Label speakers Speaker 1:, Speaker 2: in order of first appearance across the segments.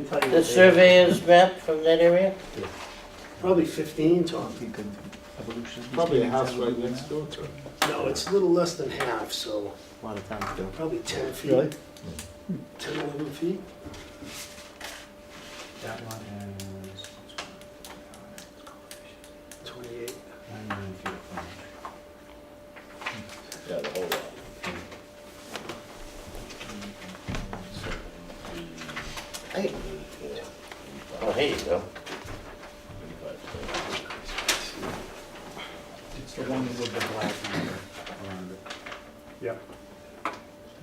Speaker 1: probably.
Speaker 2: the surveyor's map from that area?
Speaker 1: Probably fifteen, Tom.
Speaker 3: think of evolution.
Speaker 4: Probably a house right next door to it.
Speaker 1: No, it's a little less than half, so
Speaker 3: A lot of times do.
Speaker 1: probably ten feet. Hmm.
Speaker 3: Really?
Speaker 1: Ten, eleven feet.
Speaker 3: That one has
Speaker 1: Twenty-eight.
Speaker 3: nine million feet of frontage.
Speaker 4: Yeah, the whole lot.
Speaker 2: Hey. Oh, here you go.
Speaker 3: It's the one with the black number around it.
Speaker 5: Yep,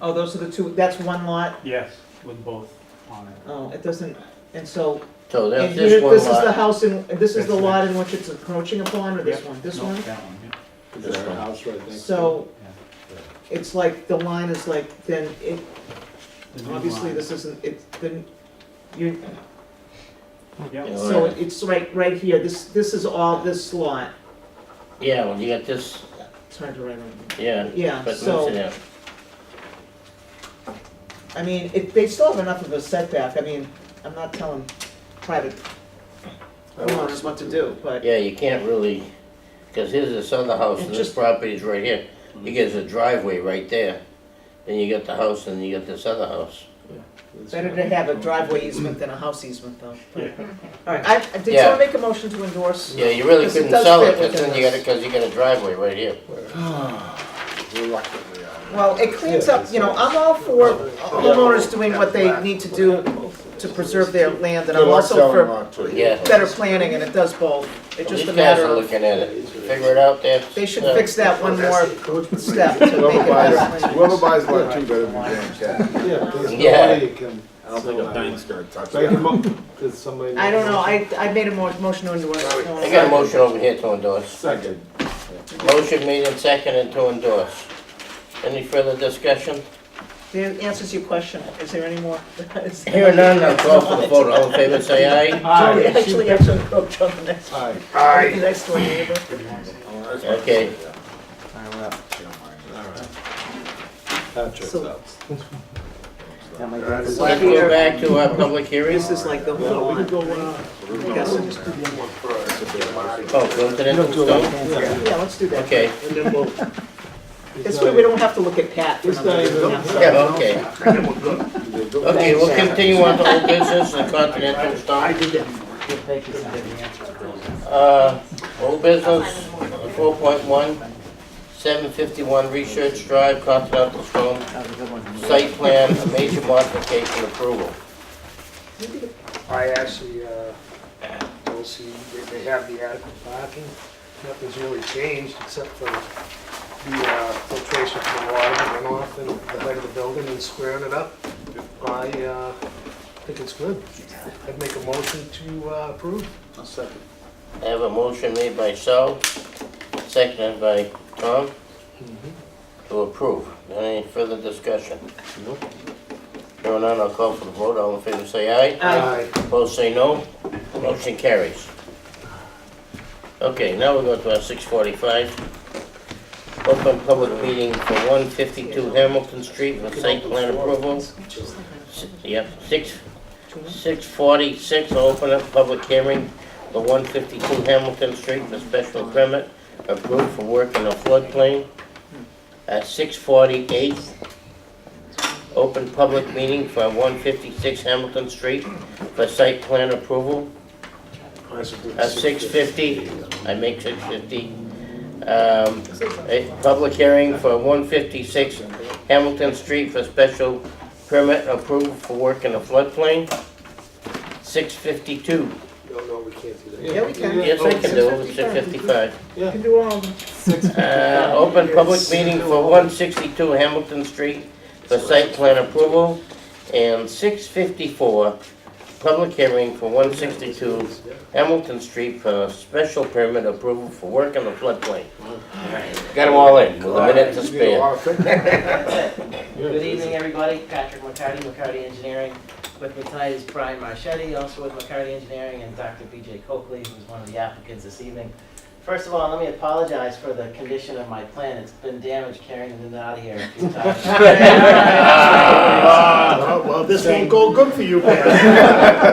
Speaker 6: Oh, those are the two, that's one lot?
Speaker 5: yes, with both on it.
Speaker 6: Oh, it doesn't, and so,
Speaker 2: So
Speaker 6: and
Speaker 2: that's
Speaker 6: here,
Speaker 2: this one
Speaker 6: this is the
Speaker 2: lot.
Speaker 6: house in, this is the
Speaker 5: That's
Speaker 6: lot in which it's encroaching upon, or this
Speaker 5: Yep,
Speaker 6: one? This
Speaker 5: no,
Speaker 6: one?
Speaker 5: That one, yeah.
Speaker 4: There's a house right next to
Speaker 6: So, it's like, the line is like, then it,
Speaker 5: The new
Speaker 6: obviously
Speaker 5: line.
Speaker 6: this isn't, it's, then, you,
Speaker 2: Yeah,
Speaker 5: Yep,
Speaker 6: so
Speaker 2: right.
Speaker 6: it's right, right here, this, this is all this lot.
Speaker 2: Yeah, well, you got this,
Speaker 6: It's hard to write on.
Speaker 2: yeah,
Speaker 6: Yeah,
Speaker 2: but
Speaker 6: so-
Speaker 2: move to there.
Speaker 6: I mean, it, they still have enough of a setback, I mean, I'm not telling private owners what to do, but.
Speaker 2: Yeah, you can't really, because here's this other house,
Speaker 6: It
Speaker 2: and this
Speaker 6: just-
Speaker 2: property's right here. You get a driveway right there, then you got the house, and you got this other house.
Speaker 4: it.
Speaker 6: Better to have a driveway easement than a house easement, though.
Speaker 5: Yeah.
Speaker 6: All right, I, did
Speaker 2: Yeah.
Speaker 6: someone make a motion to endorse?
Speaker 2: Yeah, you really
Speaker 6: Because it
Speaker 2: couldn't
Speaker 6: does
Speaker 2: sell
Speaker 6: fit
Speaker 2: it, because
Speaker 6: within
Speaker 2: then you got,
Speaker 6: this.
Speaker 2: because you got a driveway right here.
Speaker 4: Reluctantly, I.
Speaker 6: Well, it cleans up, you know, I'm all for homeowners doing what they need to do to preserve their land, and
Speaker 4: Good
Speaker 6: I'm
Speaker 4: luck
Speaker 6: also
Speaker 4: selling
Speaker 6: for
Speaker 4: lot two.
Speaker 2: Yeah.
Speaker 6: better planning, and it does both. It's just a
Speaker 2: These guys
Speaker 6: matter
Speaker 2: are
Speaker 6: of,
Speaker 2: looking at it. Figure it out there.
Speaker 6: they should
Speaker 2: Uh,
Speaker 6: fix that one
Speaker 1: That's the
Speaker 6: more
Speaker 1: encroachment.
Speaker 6: step to make it
Speaker 4: Whoever buys,
Speaker 6: better.
Speaker 4: whoever buys lot two better be damn careful.
Speaker 1: Yeah, there's no
Speaker 2: Yeah.
Speaker 1: way you can.
Speaker 4: I don't think a bank's gonna touch
Speaker 1: Make a
Speaker 4: that.
Speaker 1: mo- Did somebody?
Speaker 6: I don't know,
Speaker 1: make
Speaker 6: I, I made a mo- motion to endorse. No one
Speaker 2: I got a
Speaker 6: else.
Speaker 2: motion over here to endorse.
Speaker 4: Second.
Speaker 2: Motion made and seconded to endorse. Any further discussion?
Speaker 6: It answers your question, is there any more? Is there-
Speaker 2: Here none, I'll call for the vote. All in favor, say aye.
Speaker 6: So we actually have to encroach on the next,
Speaker 4: Aye.
Speaker 6: the next door neighbor.
Speaker 4: Oh, that's what I
Speaker 2: Okay.
Speaker 4: said,
Speaker 3: All right, we're up.
Speaker 4: yeah. Don't mind that.
Speaker 1: That trips
Speaker 6: So-
Speaker 1: out.
Speaker 3: Yeah, my dad is-
Speaker 2: Let's go back to our public hearing.
Speaker 6: This is like the
Speaker 1: No,
Speaker 6: whole
Speaker 1: we could
Speaker 6: lot.
Speaker 1: go, uh,
Speaker 6: Yes, it is.
Speaker 2: Oh, go to the next one.
Speaker 6: Yeah, let's do that.
Speaker 2: Okay,
Speaker 1: and then we'll.
Speaker 6: This way we don't have to look at Pat for
Speaker 1: This guy,
Speaker 6: another
Speaker 1: this
Speaker 6: yeah.
Speaker 1: guy.
Speaker 2: yeah, okay. Okay, we'll continue on to old business, the Continental
Speaker 1: I
Speaker 2: Star.
Speaker 1: did that before.
Speaker 2: Uh, old business, four point one, seven fifty-one Research Drive, Continental Stone,
Speaker 3: That was a good one.
Speaker 2: site plan, a major modification approval.
Speaker 1: I actually, uh, don't see, they- they have the adequate parking. Nothing's really changed except for the uh, filtration from the water and runoff and the height of the building and squaring it up. I uh, think it's good. I'd make a motion to uh, approve.
Speaker 4: I'll second.
Speaker 2: I have a motion made by Sal, seconded by Tom, to approve. Any further discussion? Hearing none, I'll call for the vote. All in favor, say aye.
Speaker 6: Aye.
Speaker 2: Opposed, say no. Motion carries. Okay, now we go to our six forty-five. Open public meeting for one fifty-two Hamilton Street for site plan approval. S- Yep, six, six forty-six, open up public hearing for one fifty-two Hamilton Street for special permit approved for work in the floodplain. At six forty-eight, open public meeting for one fifty-six Hamilton Street for site plan approval. At six fifty, I make six fifty. Um, a public hearing for one fifty-six Hamilton Street for special permit approved for work in the floodplain. Six fifty-two,
Speaker 1: No, no, we can't do that.
Speaker 6: Yeah, we can.
Speaker 2: yes, I can do, six fifty-five.
Speaker 6: You can do all of them.
Speaker 2: Uh, open public meeting for one sixty-two Hamilton Street for site plan approval. And six fifty-four, public hearing for one sixty-two Hamilton Street for special permit approval for work on the floodplain. Got them all in, with a minute to
Speaker 4: You need a
Speaker 2: spare.
Speaker 4: lot of thinking.
Speaker 7: Good evening, everybody. Patrick McCarty, McCarty Engineering. With me tonight is Brian Marchetti, also with McCarty Engineering, and Dr. BJ Coakley, who's one of the applicants this evening. First of all, let me apologize for the condition of my plan. It's been damaged carrying it out of here a few times.
Speaker 1: Well, this won't go good for you, Pat.